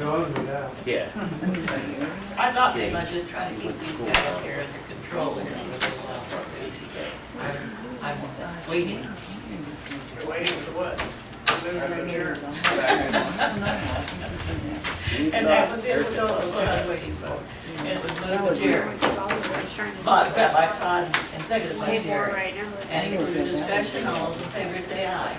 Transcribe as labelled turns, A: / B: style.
A: No, I knew that.
B: Yeah.
C: I thought maybe I was just trying to keep these guys here under control and it was a lot. I'm waiting.
D: You're waiting for what? Moving in here.
C: And that was it, was all that's what I was waiting for. And It was moved to Jerry. But, but by Todd and seconded by
E: Way more
C: Jerry.
E: right now.
C: Any further discussion, all those in favor say aye.